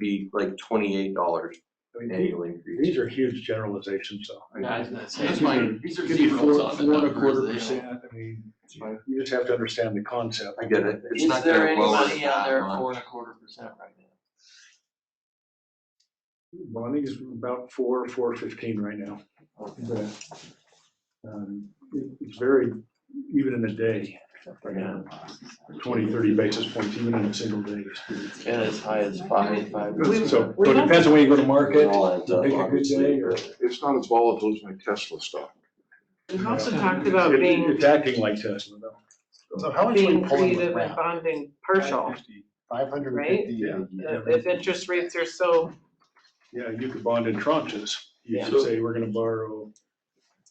be like twenty-eight dollars I mean, annual the- these increase. are huge generalizations, though. I mean, Yeah, I was gonna say, That's these my- are- these are Could be zeros four, on the four and a quarter numbers, they don't- percent, I mean, It's fine. you just have to understand the concept. I get it. It's Is not there gonna any blow us money out that there much. four and a quarter percent right now? Bonnie's about four, four fifteen right now. But, um, it- It's very, even in a day, Yeah. twenty, thirty basis points, even in a single day. And as high as five, five. So, so it depends on where you go to It market, all adds up, pick a good day, obviously. or. It's not as volatile as my Tesla stock. We've also talked about It- being, It's acting like Tesla, though. So how much are being we pulling with creative and rent? bonding partial. Five hundred and right? fifty a year. If if interest rates are so, Yeah, you could bond in tranches. You Yeah. could say, we're gonna borrow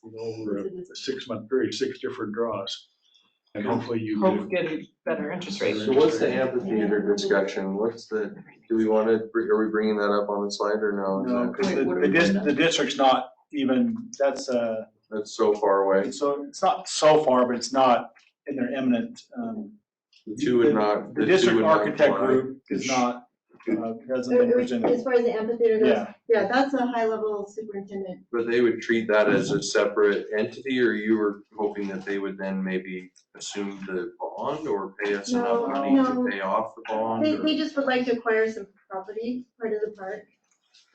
you know, over a six-month period, six different draws. And hopefully you hope do. get better interest rates. So what's the amphitheater discussion? What's the, do we want to, are we bringing that up on the slide or no? Is No, that- because the, the dis, the district's not even, that's, uh, That's so far away. so it's not so far, but it's not in their eminent, um. The two would not, The the two district would not architect fly. group is not, uh, hasn't been As presented, far as the amphitheater goes, yeah. yeah, that's a high level superintendent. But they would treat that as a separate entity or you were hoping that they would then maybe assume the bond or pay us enough No, money to no. pay off the bond? They, or- they just would like to acquire some property, part of the park,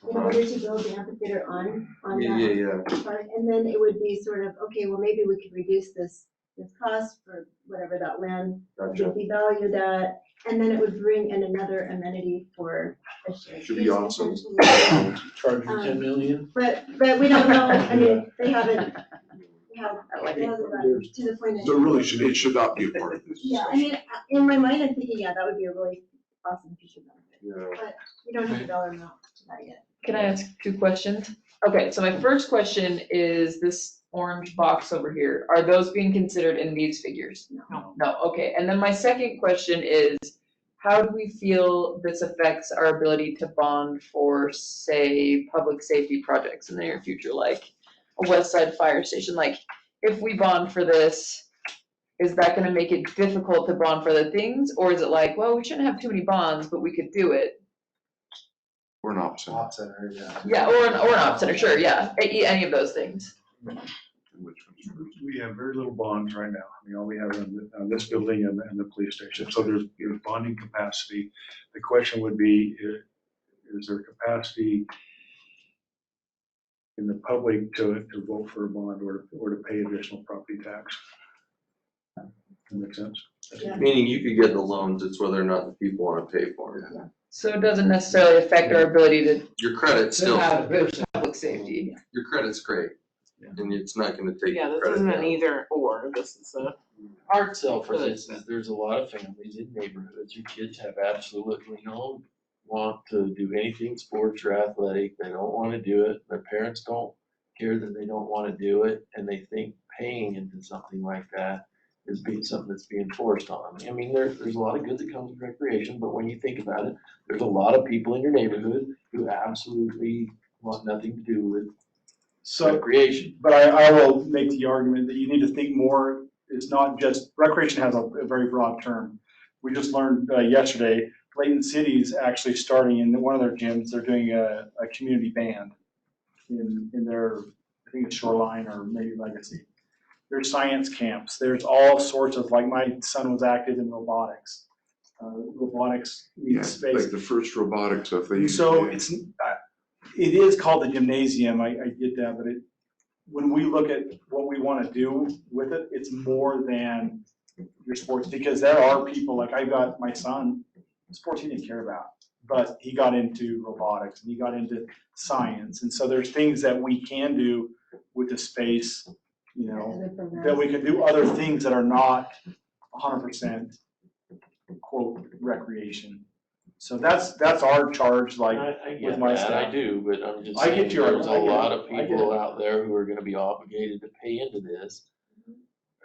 in Uh-huh. order to build the amphitheater on, on Yeah, yeah, that yeah. park. And then it would be sort of, okay, well, maybe we could reduce this, this cost for whatever that land, Gotcha. would be valued at. And then it would bring in another amenity for a shared Should be use awesome. potentially. Charging Um, million? But, but we don't know, I mean, they haven't, they have, it hasn't gotten to the point. that- So it really should, it should not be a part of this. Yeah, I mean, uh, in my mind, I'm thinking, yeah, that would be a really awesome feature benefit. Yeah. We don't have a dollar amount to that yet. Can I ask two questions? Okay, so my first question is this orange box over here, are those being considered in these figures? No. No, okay, and then my second question is, how do we feel this affects our ability to bond for, say, public safety projects in the near future, like a West Side Fire Station, like, if we bond for this, is that gonna make it difficult to bond for other things, or is it like, well, we shouldn't have too many bonds, but we could do it? We're an option, center, yeah. Yeah, or an, or an op center, sure, yeah, E, any, any of those things. which one's first? We have very little bonds right now. I mean, all we have on th- on this building and, and the police station. So there's, there's bonding capacity. The question would be, i- is there capacity in the public to, to vote for a bond or, or to pay additional property tax? That make sense? Meaning you could get the loans, it's whether or not the people wanna pay for it. So it doesn't necessarily affect our ability to, Your credit's to still, have public safety. your credit's great, and it's not gonna take Yeah, your this isn't credit an down. either or, this is a. Hard sell for Really this is there's a lot of families in neighborhoods, your kids have absolutely no want to do anything sports or athletic, they don't wanna do it, their parents don't care that they don't wanna do it, and they think paying into something like that is being something that's being forced on them. I mean, there, there's a lot of good that comes with recreation, but when you think about it, there's a lot of people in your neighborhood who absolutely want nothing to do with So, recreation. but I, I will make the argument that you need to think more, it's not just, recreation has a, a very broad term. We just learned, uh, yesterday, Layton City's actually starting in one of their gyms, they're doing a, a community band in, in their, I think it's Shoreline or maybe Legacy. There's science camps, there's all sorts of, like, my son was active in robotics. Uh, robotics Yeah, needs space. like the first robotics stuff they. So it's, I- it is called the gymnasium, I, I get that, but it, when we look at what we want to do with it, it's more than your sports, because there are people, like I've got my son, sports he didn't care about, but he got into robotics, and he got into science, and so there's things that we can do with the space, you know, Other programs. that we can do other things that are not hundred percent quote recreation. So that's, that's our charge, like, I, I with get my that, I staff. do, but I'm just I get saying, your- there's a I get it, lot of I get people it. out there who are gonna be obligated to pay into this.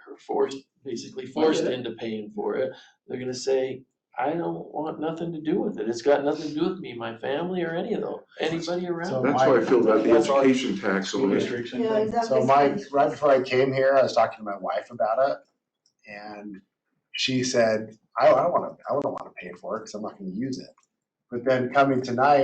Or forced, basically forced Mm-hmm. it. into paying for it, they're gonna say, I don't want nothing to do with it, it's got nothing to do with me, my family, or any of them, anybody So- around. That's why I feel about the That's our- education tax, School on it. districts and Yeah, things. exactly. So my, right before I came here, I was talking to my wife about it, and she said, I, I don't wanna, I wouldn't wanna pay for it, cause I'm not gonna use it. But then coming tonight,